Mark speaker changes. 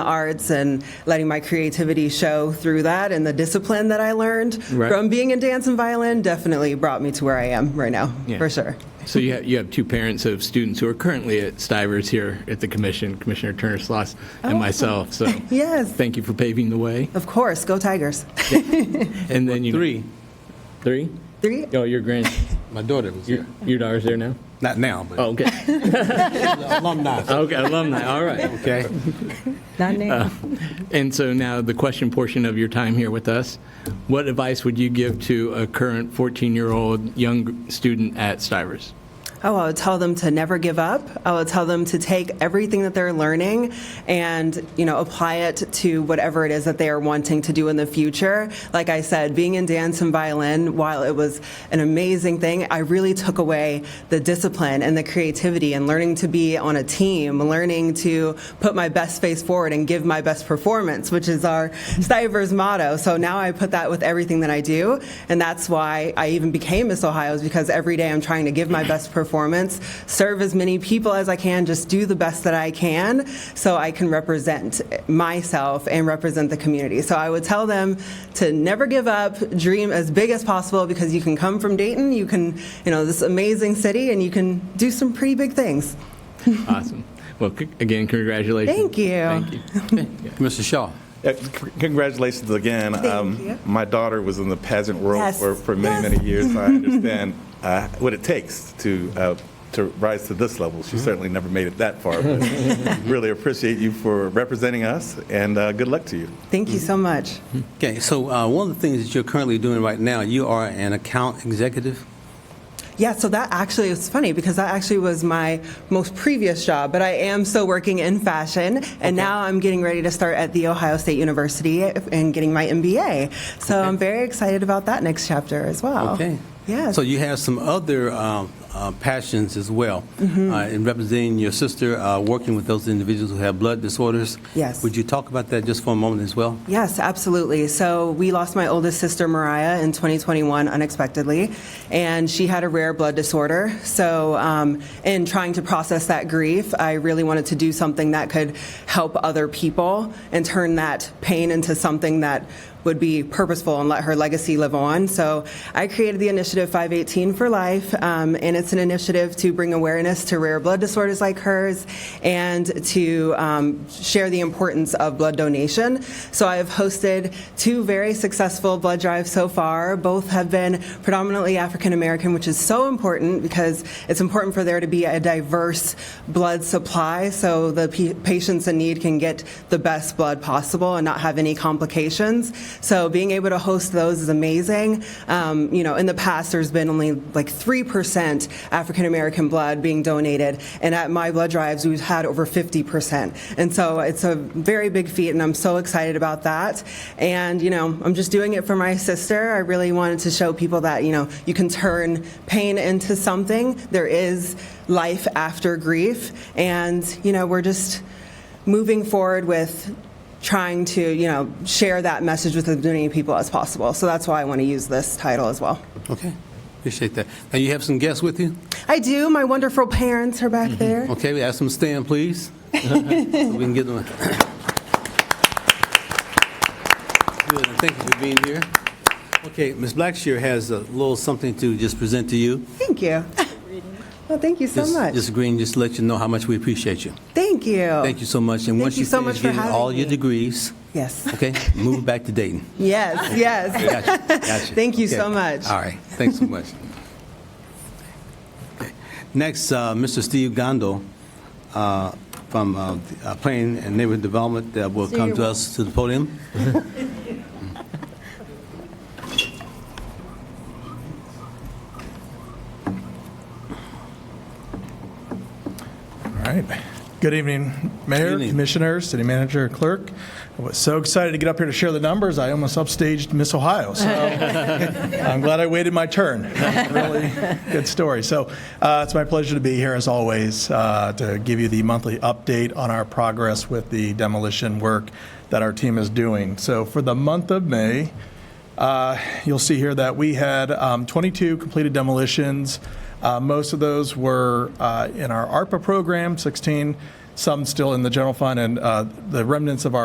Speaker 1: arts and letting my creativity show through that and the discipline that I learned
Speaker 2: Right.
Speaker 1: from being in dance and violin definitely brought me to where I am right now,
Speaker 2: Yeah.
Speaker 1: for sure.
Speaker 2: So you have, you have two parents of students who are currently at Stivers here at the commission, Commissioner Turner Sloss and myself. So
Speaker 1: Yes.
Speaker 2: thank you for paving the way.
Speaker 1: Of course, go Tigers.
Speaker 2: And then you
Speaker 3: Three.
Speaker 2: three.
Speaker 1: Three.
Speaker 2: Oh, your grand,
Speaker 3: My daughter was
Speaker 2: your,
Speaker 3: here.
Speaker 2: your daughter's there now.
Speaker 3: Not now, but
Speaker 2: Oh, okay.
Speaker 3: Oh, alumni.
Speaker 2: Okay, alumni. All right.
Speaker 3: Okay.
Speaker 1: Not now.
Speaker 2: And so now the question portion of your time here with us. What advice would you give to a current 14-year-old young student at Stivers?
Speaker 1: Oh, I would tell them to never give up. I would tell them to take everything that they're learning and, you know, apply it to whatever it is that they are wanting to do in the future. Like I said, being in dance and violin, while it was an amazing thing, I really took away the discipline and the creativity and learning to be on a team, learning to put my best face forward and give my best performance, which is our Stivers motto. So now I put that with everything that I do. And that's why I even became Miss Ohio, is because every day I'm trying to give my best performance, serve as many people as I can, just do the best that I can so I can represent myself and represent the community. So I would tell them to never give up, dream as big as possible because you can come from Dayton, you can, you know, this amazing city, and you can do some pretty big things.
Speaker 2: Awesome. Well, c- again, congratulations.
Speaker 1: Thank you.
Speaker 2: Thank you.
Speaker 3: Mr. Shaw.
Speaker 4: Uh, c- Congratulations again. Um,
Speaker 1: you.
Speaker 4: My daughter was in the pageant world
Speaker 1: Yes.
Speaker 4: for, for many,
Speaker 1: Yes.
Speaker 4: many years. I understand uh, what it takes to, uh, to rise to this level. She certainly never made it that far. but Really appreciate you for representing us, and uh, good luck to you.
Speaker 1: Thank you so much.
Speaker 3: Okay, so uh, one of the things that you're currently doing right now, you are an account executive.
Speaker 1: Yeah, so that actually is funny because that actually was my most previous job, but I am still working in fashion, and now I'm getting ready to start at The Ohio State University and getting my MBA. So I'm very excited about that next chapter as well.
Speaker 3: Okay.
Speaker 1: Yes.
Speaker 3: So you have some other uh, uh, passions as well.
Speaker 1: Mm-hmm.
Speaker 3: Uh, in representing your sister, uh, working with those individuals who have blood disorders.
Speaker 1: Yes.
Speaker 3: Would you talk about that just for a moment as well?
Speaker 1: Yes, absolutely. So we lost my oldest sister, Mariah, in 2021 unexpectedly, and she had a rare blood disorder. So, um, in trying to process that grief, I really wanted to do something that could help other people and turn that pain into something that would be purposeful and let her legacy live on. So I created the initiative 518 for Life, um, and it's an initiative to bring awareness to rare blood disorders like hers and to um, share the importance of blood donation. So I have hosted two very successful blood drives so far. Both have been predominantly African American, which is so important because it's important for there to be a diverse blood supply so the p- patients in need can get the best blood possible and not have any complications. So being able to host those is amazing. Um, you know, in the past, there's been only like 3% African American blood being donated, and at my blood drives, we've had over 50%. And so it's a very big feat, and I'm so excited about that. And, you know, I'm just doing it for my sister. I really wanted to show people that, you know, you can turn pain into something. There is life after grief, and, you know, we're just moving forward with trying to, you know, share that message with as many people as possible. So that's why I want to use this title as well.
Speaker 3: Okay. Appreciate that. Now you have some guests with you.
Speaker 1: I do. My wonderful parents are back there.
Speaker 3: Okay, we ask them to stand, please. so we can get them. a- Good, and thank you for being here. Okay, Ms. Blackshear has a little something to just present to you.
Speaker 1: Thank you. Well, thank you so
Speaker 3: Just-
Speaker 1: much.
Speaker 3: Just agreeing, just to let you know how much we appreciate you.
Speaker 1: Thank you.
Speaker 3: Thank you so much. And
Speaker 1: Thank
Speaker 3: once
Speaker 1: you so
Speaker 3: finish
Speaker 1: much for
Speaker 3: getting
Speaker 1: having
Speaker 3: all your
Speaker 1: me.
Speaker 3: degrees,
Speaker 1: Yes.
Speaker 3: okay, move back to Dayton.
Speaker 1: Yes. Yes.
Speaker 3: Gotcha, gotcha.
Speaker 1: Thank you
Speaker 3: Okay.
Speaker 1: so much.
Speaker 3: All right, thanks so much. Okay. Next, uh, Mr. Steve Gondo uh, from uh, the, uh, Planning and Neighborhood Development uh, will
Speaker 5: So
Speaker 3: come
Speaker 5: you're
Speaker 3: to us to the podium.
Speaker 6: All right. Good evening, Mayor,
Speaker 3: evening.
Speaker 6: Commissioners, City Manager, Clerk. I was so excited to get up here to share the numbers. I almost upstaged Miss Ohio, so I'm glad I waited my turn. Really good story. So uh, it's my pleasure to be here, as always, uh, to give you the monthly update on our progress with the demolition work that our team is doing. So for the month of May, uh, You'll see here that we had um, 22 completed demolitions. Uh, Most of those were uh, in our ARPA program, 16 some still in the general fund, and uh, the remnants of our